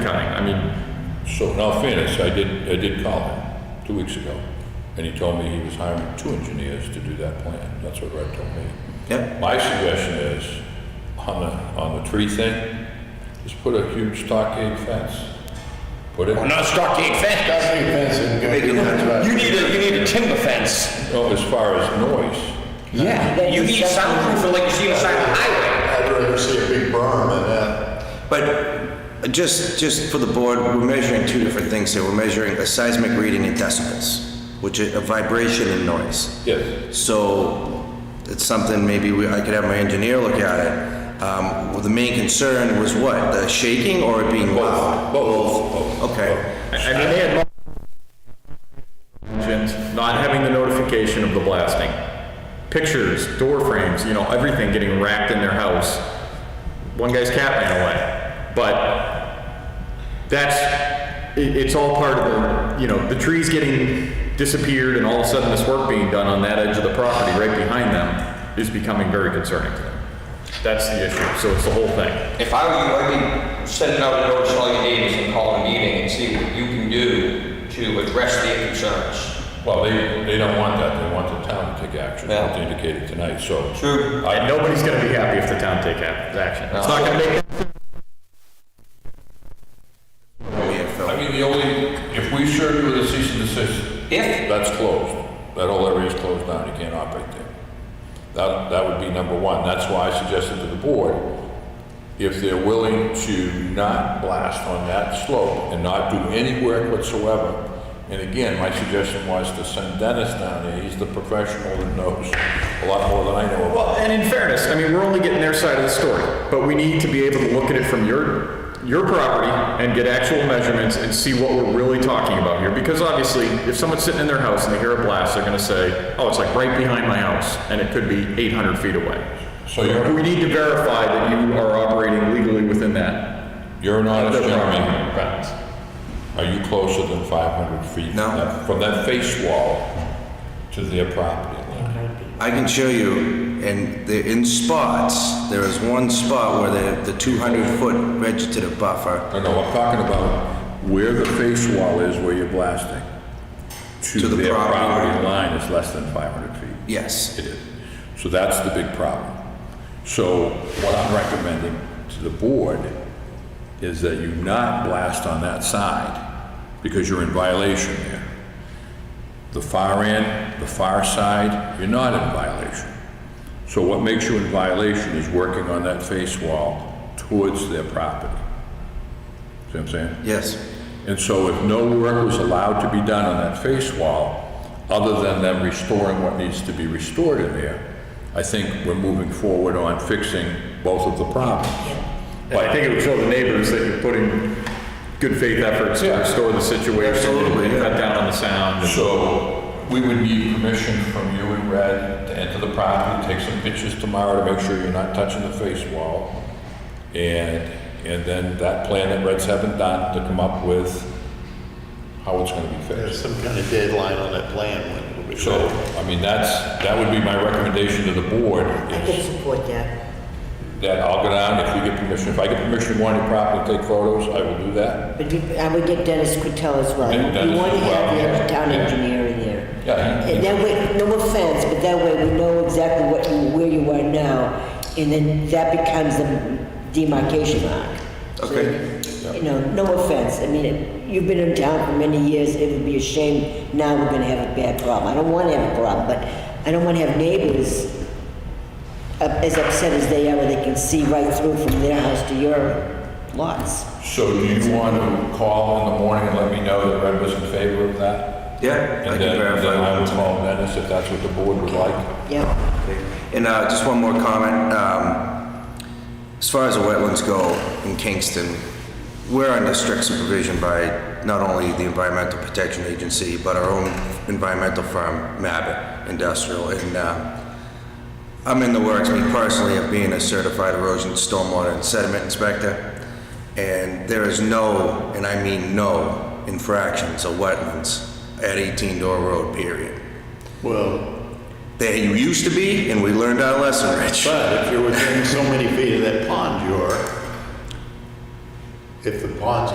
So in all fairness, I did, I did call him two weeks ago, and he told me he was hiring two engineers to do that plan. That's what Red told me. Yep, My suggestion is, on the, on the tree thing, just put a huge stockade fence. Put it, Well, not stockade fence. That's pretty fancy. Make it look- You need a, you need a timber fence. oh, as far as noise, Yeah. You need soundproof like you see on the side of the highway. I'd rather see a big berm than that. but just, just for the board, we're measuring two different things here. We're measuring a seismic reading in decibels, which is a vibration and noise. yes. So it's something maybe we, I could have my engineer look at it. Um, well, the main concern was what, the shaking or it being loud? Both, both. Okay, I I mean, they had mentioned not having the notification of the blasting. Pictures, door frames, you know, everything getting wrapped in their house. One guy's cat ran away. But that's, it, it's all part of the, you know, the trees getting disappeared and all of a sudden this work being done on that edge of the property right behind them is becoming very concerning to them. That's the issue, so it's the whole thing. If I were you, I'd be sending out a notice to all your neighbors and calling a meeting and see what you can do to address their concerns. Well, they, they don't want that, they want the town to take action, Yeah. as indicated tonight, so. True. I And know, nobody's gonna be happy if the town take ac- action. It's not gonna make we have I Phil. mean, the only, if we serve you with a cease and desist, If, that's closed. That whole area is closed down, you can't operate there. That, that would be number one, that's why I suggested to the board, if they're willing to not blast on that slope and not do any work whatsoever, and again, my suggestion was to send Dennis down there, he's the professional that knows a lot more than I know about. Well, and in fairness, I mean, we're only getting their side of the story, but we need to be able to look at it from your, your property and get actual measurements and see what we're really talking about here. Because obviously, if someone's sitting in their house and they hear a blast, they're gonna say, oh, it's like right behind my house, and it could be 800 feet away. So you're. We need to verify that you are operating legally within that. You're an honest Their property gentleman. bounds. Are you closer than 500 feet? No. from that- From that face wall to their property line? I can show you, and they're in spots, there is one spot where the, the 200-foot vegetative buffer No, no, I'm talking about where the face wall is where you're blasting. To the their property property line is less than 500 feet. Yes. It is. So that's the big problem. So what I'm recommending to the board is that you not blast on that side because you're in violation there. The far end, the far side, you're not in violation. So what makes you in violation is working on that face wall towards their property. See what I'm saying? Yes. And so if no work was allowed to be done on that face wall, other than them restoring what needs to be restored in there, I think we're moving forward on fixing both of the problems. And I think it would show the neighbors that you're putting good faith efforts to Yeah. restore the situation, Absolutely, and yeah. cut down on the sound. and- So we would need permission from you and Red to enter the property, take some pictures tomorrow to make sure you're not touching the face wall. And, and then that plan that Red's having done to come up with how it's gonna be fixed. There's some kind of deadline on that plan when it'll be So, ready. I mean, that's, that would be my recommendation to the board, I can is support that. that I'll go down, if we get permission, if I get permission to go on your property, take photos, I will do that. But you- I would get Dennis Quintel as well. And Dennis You want to as well, have yeah. the town Yeah. engineer in there. Yeah, he- And that way, no offense, but that way we know exactly what you, where you are now, and then that becomes the demarcation mark. Okay. So, You know, no offense, I mean, it- you've been in town for many years, it would be a shame, now we're gonna have a bad problem. I don't wanna have a problem, but I don't wanna have neighbors up- as upset as they are, where they can see right through from their house to your lots. So do you want to call in the morning and let me know that Red was in favor of that? Yeah, I And can then, verify. then I with will them. call Dennis if that's what the board would like. Yeah, And uh, just one more comment. Um, as far as the wetlands go in Kingston, we're under strict supervision by not only the Environmental Protection Agency, but our own environmental firm, Mabit Industrial. And uh, I'm in the works, me personally, of being a certified erosion, stormwater, and sediment inspector. And there is no, and I mean no, infractions of wetlands at 18 Door Road, period. Well, They used to be, and we learned our lesson, Rich. but if you're within so many feet of that pond, you are. If the pond's